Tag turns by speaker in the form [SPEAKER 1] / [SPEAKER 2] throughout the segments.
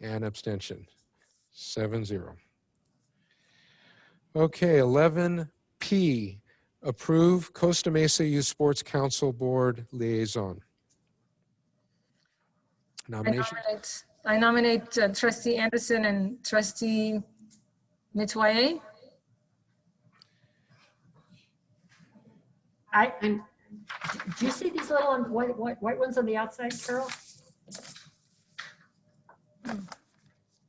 [SPEAKER 1] and abstention. Seven zero. Okay, eleven P, approve Costa Mesa Youth Sports Council Board Liaison.
[SPEAKER 2] I
[SPEAKER 1] Nomination,
[SPEAKER 2] nominate, I nominate uh, trustee Anderson and trustee Metoyer.
[SPEAKER 3] I, I'm, do you see these little um, white, white, white ones on the outside, Carol?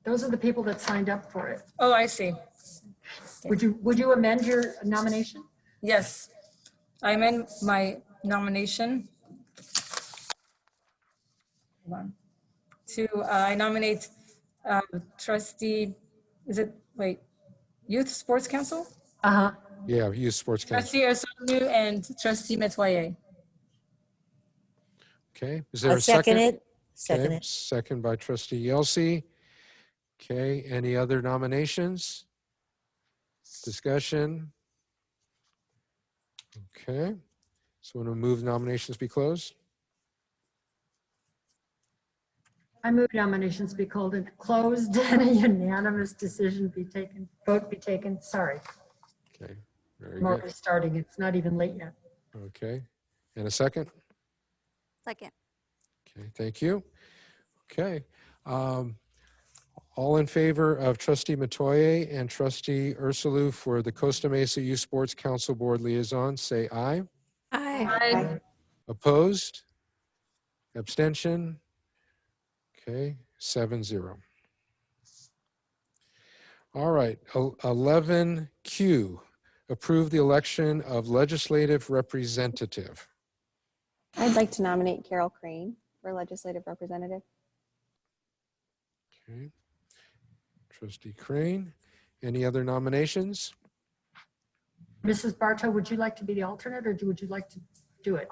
[SPEAKER 3] Those are the people that signed up for it.
[SPEAKER 2] Oh, I see.
[SPEAKER 3] Would you, would you amend your nomination?
[SPEAKER 2] Yes. I amend my nomination. Hold on. To, uh, I nominate uh, trustee, is it, wait, Youth Sports Council?
[SPEAKER 3] Uh-huh.
[SPEAKER 4] Um,
[SPEAKER 1] yeah, Youth Sports Council,
[SPEAKER 2] Trustee Osomu and trustee Metoyer.
[SPEAKER 1] okay. Is there
[SPEAKER 4] I'll
[SPEAKER 1] a second?
[SPEAKER 4] second it. Second
[SPEAKER 1] Okay,
[SPEAKER 4] it.
[SPEAKER 1] Second by trustee Yelsey. Okay, any other nominations? Discussion? Okay, so want to move nominations be closed?
[SPEAKER 3] I move nominations be called and closed and a unanimous decision be taken, vote be taken. Sorry,
[SPEAKER 1] Okay, very
[SPEAKER 3] I'm already
[SPEAKER 1] good.
[SPEAKER 3] starting. It's not even late yet.
[SPEAKER 1] Okay, and a second?
[SPEAKER 5] Second.
[SPEAKER 1] Okay, thank you. Okay. um, All in favor of trustee Matoye and trustee Ursulou for the Costa Mesa Youth Sports Council Board Liaison, say aye.
[SPEAKER 5] Aye.
[SPEAKER 2] Aye.
[SPEAKER 1] Opposed? Abstention? Okay, seven zero. All right, eleven Q, approve the election of legislative representative.
[SPEAKER 6] I'd like to nominate Carol Crane for legislative representative.
[SPEAKER 1] Okay. Trustee Crane, any other nominations?
[SPEAKER 3] Mrs. Bartow, would you like to be the alternate or do- would you like to do it?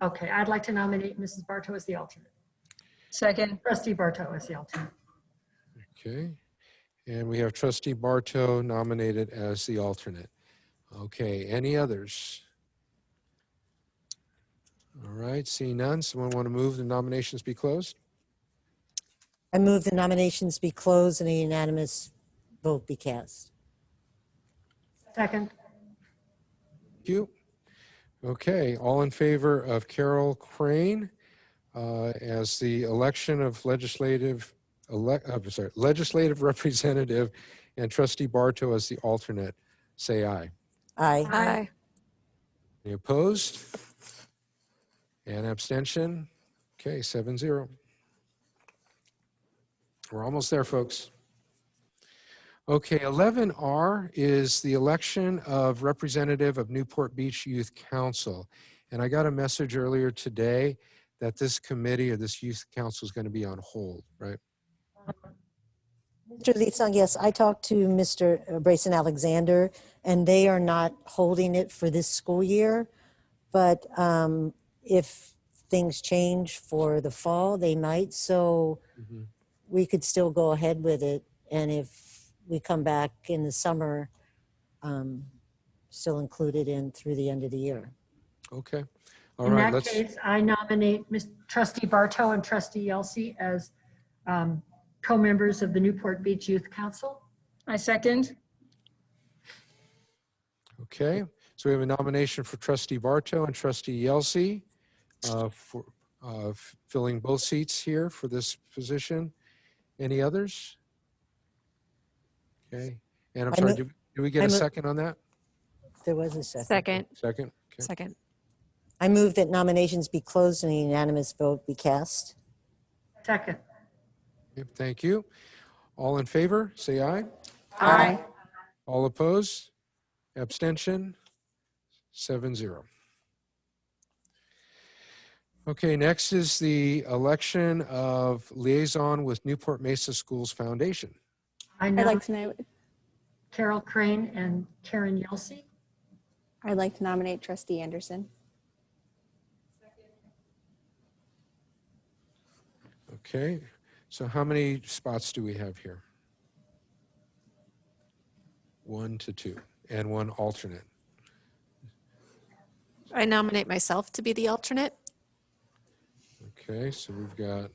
[SPEAKER 3] Okay, I'd like to nominate Mrs. Bartow as the alternate.
[SPEAKER 2] Second.
[SPEAKER 3] Trustee Bartow as the alternate.
[SPEAKER 1] Okay, and we have trustee Barto nominated as the alternate. Okay, any others? All right, seeing none, someone want to move the nominations be closed?
[SPEAKER 4] I move the nominations be closed and a unanimous vote be cast.
[SPEAKER 3] Second,
[SPEAKER 1] Thank you. Okay, all in favor of Carol Crane uh, as the election of legislative, elec- uh, sorry, legislative representative and trustee Barto as the alternate, say aye.
[SPEAKER 4] Aye.
[SPEAKER 5] Aye.
[SPEAKER 1] Any opposed? And abstention? Okay, seven zero. We're almost there, folks. Okay, 11R is the election of representative of Newport Beach Youth Council. And I got a message earlier today that this committee or this youth council is going to be on hold, right?
[SPEAKER 4] Mr. Lee-sung, yes, I talked to Mr. Brayson Alexander, and they are not holding it for this school year. But um, if things change for the fall, they might. So
[SPEAKER 3] Mm-hmm.
[SPEAKER 4] we could still go ahead with it. And if we come back in the summer, um, still include it in through the end of the year.
[SPEAKER 1] Okay. All
[SPEAKER 3] in
[SPEAKER 1] right,
[SPEAKER 3] that
[SPEAKER 1] let's,
[SPEAKER 3] case, I nominate Ms. trustee Bartow and trustee Yelsey as um, co-members of the Newport Beach Youth Council.
[SPEAKER 2] I second.
[SPEAKER 1] okay. So we have a nomination for trustee Barto and trustee Yelsey. uh, for uh, f- filling both seats here for this position. Any others? Okay, and I'm
[SPEAKER 4] I
[SPEAKER 1] sorry,
[SPEAKER 4] mo-
[SPEAKER 1] did did we get
[SPEAKER 4] I
[SPEAKER 1] a
[SPEAKER 4] mo-
[SPEAKER 1] second on that?
[SPEAKER 4] There was a second.
[SPEAKER 5] Second.
[SPEAKER 1] Second? Okay.
[SPEAKER 5] Second.
[SPEAKER 4] I move that nominations be closed and a unanimous vote be cast.
[SPEAKER 3] Second,
[SPEAKER 1] Yep, Thank you. All in favor, say aye.
[SPEAKER 3] Aye.
[SPEAKER 1] All opposed? Abstention? Seven zero. Okay, next is the election of liaison with Newport Mesa Schools Foundation.
[SPEAKER 3] I
[SPEAKER 6] I'd like
[SPEAKER 3] nominate
[SPEAKER 6] to, no-
[SPEAKER 3] Carol Crane and Karen Yelsey.
[SPEAKER 6] I'd like to nominate trustee Anderson.
[SPEAKER 1] Okay, so how many spots do we have here? One to two, and one alternate.
[SPEAKER 5] I nominate myself to be the alternate.
[SPEAKER 1] Okay, so we've got